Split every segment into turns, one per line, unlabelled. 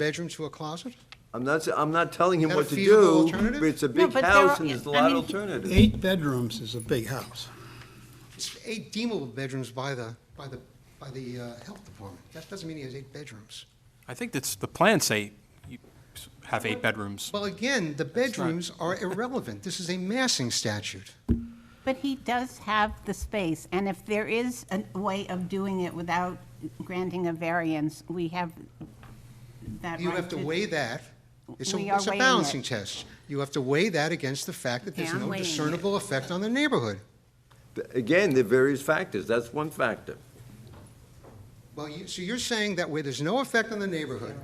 bedroom to a closet?
I'm not, s- I'm not telling him
Is that a
what to
feasible
do,
alternative?
but it's a
No,
big
but there
house
are-
and there's a
I
lot
mean-
of alternatives.
Eight bedrooms is a big house.
It's eight deemable bedrooms by the, by the, by the uh, health department. That doesn't mean he has eight bedrooms.
I think that's, the plans say you have eight bedrooms.
Well, again, the bedrooms are irrelevant. This is a massing statute.
But he does have the space, and if there is a way of doing it without granting a variance, we have that right
You have to weigh that. It's
We
a,
are
it's a
weighing it.
balancing test. You have to weigh that against the fact that there's
Yeah, I'm
no
weighing it.
discernible effect on the neighborhood.
Again, there are various factors, that's one factor.
Well, you, so you're saying that where there's no effect on the neighborhood,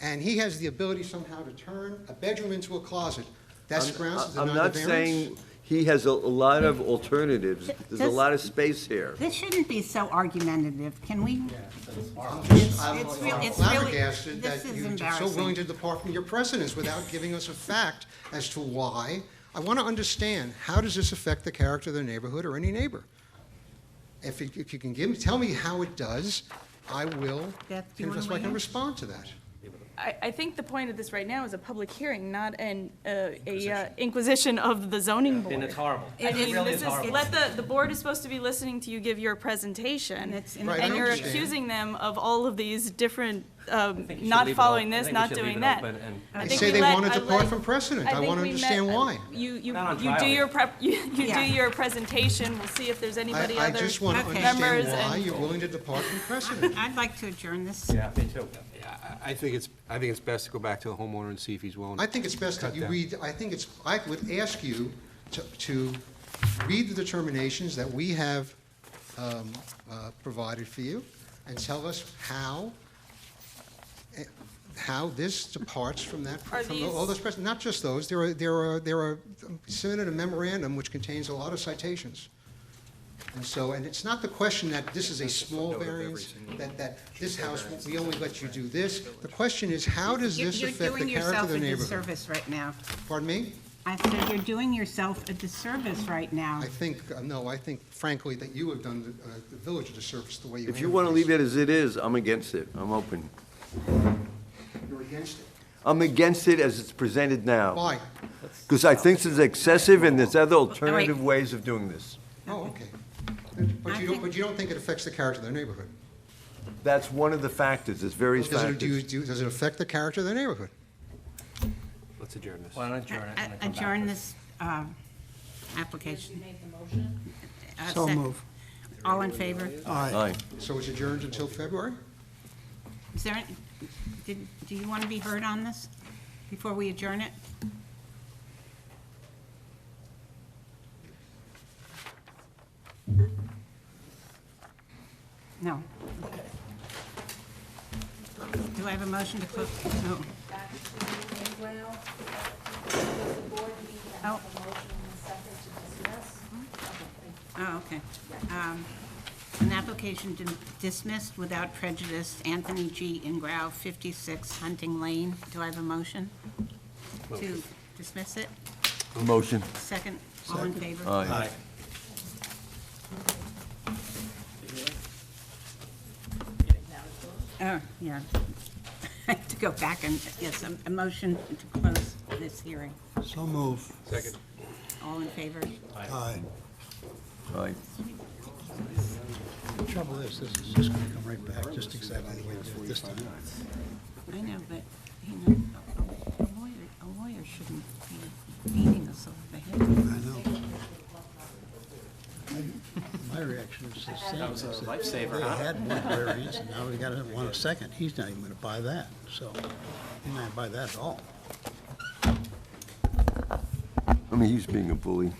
and he has the ability somehow to turn a bedroom into a closet, that's
I'm-
grounds to
I'm
deny the
not
variance?
saying, he has a a lot of alternatives, there's a
Does-
lot of space here.
This shouldn't be so argumentative, can we?
It's
it's real- it's really-
flabbergasted that
this is
you're so
embarrassing.
willing to depart from your precedents without giving us a fact as to why. I want to understand, how does this affect the character of the neighborhood or any neighbor? If you, if you can give, me, tell me how it does, I will,
Beth, do you wanna
that's why I
weigh
can
in?
respond to that.
I, I think the point of this right now is a public hearing, not an, uh, a uh, inquisition of the zoning board.
And it's horrible.
I
It
mean,
really
this
is
is-
horrible.
Let the, the board is supposed to be listening to you give your presentation,
And it's in- Right, I
and you're
understand.
accusing them of all of these different, um,
I think you should
not
leave it
following
open. I
this,
think we
not
should leave
doing
it
that.
open and-
I
They
think
say
we
they
let-
wanted to
I
depart
let-
from precedent. I
think
wanna
we met-
understand
I-
why.
You, you,
Not on
you do
trial.
your prep, you, you do
Yeah.
your presentation, we'll see if there's anybody
I, I
other
just want to
Okay.
members
understand why
and
you're willing to depart from precedent.
I'd like to adjourn this.
Yeah, me too.
I think it's, I think it's best to go back to the homeowner and see if he's willing.
I think it's best that
Cut
you
down.
read, I think it's, I would ask you to, to read the determinations that we have um, uh, provided for you and tell us how, eh, how this departs from that,
Are
from all
these-
those precedents. Not just those, there are, there are, there are, submitted a memorandum which contains a lot of citations. And so, and it's not the question that this is a small variance, that, that this house, we only let you do this. The question is, how does
You're
this
you're
affect the
doing
character of
yourself
the
a
neighborhood?
disservice right now.
Pardon me?
I said you're doing yourself a disservice right now.
I think, uh, no, I think frankly that you have done the, uh, the village a disservice the way you.
If you want to leave it as it is, I'm against it, I'm open.
You're against it.
I'm against it as it's presented now.
Why?
Because I think this is excessive and there's other
right.
alternative ways of doing this.
Oh, okay. But you don't, but you don't think it affects the character of the neighborhood?
That's one of the factors, there's various
Does it, do you,
factors.
do, does it affect the character of the neighborhood?
Let's adjourn this.
Why don't I adjourn it? and I come back to
Adjourn
it?
this uh, application. Uh,
So
sec-
move.
All in favor?
Aye.
So it's adjourned until February?
Is there, any- did, do you want to be heard on this before we adjourn it? No. Do I have a motion to close? No. Oh. Oh, okay. Um, An application dim- dismissed without prejudice, Anthony G. Ingrao, 56 Hunting Lane. Do I have a motion to dismiss it?
Motion.
Second, all in favor?
Aye.
Oh, yeah. I have to go back and, yes, a- a motion to close this hearing.
So move.
All in favor?
Aye.
Aye.
The trouble is, this is just gonna come right back, just exactly the way it did this time.
I know, but, you know, a- a lawyer, a lawyer shouldn't be beating us over the head.
I know. My- My reaction is the same. That was a lifesaver, They had one variance, and now we gotta have one a second. He's not even gonna buy that, so he's not gonna buy that at all.
I mean, he's being a bully.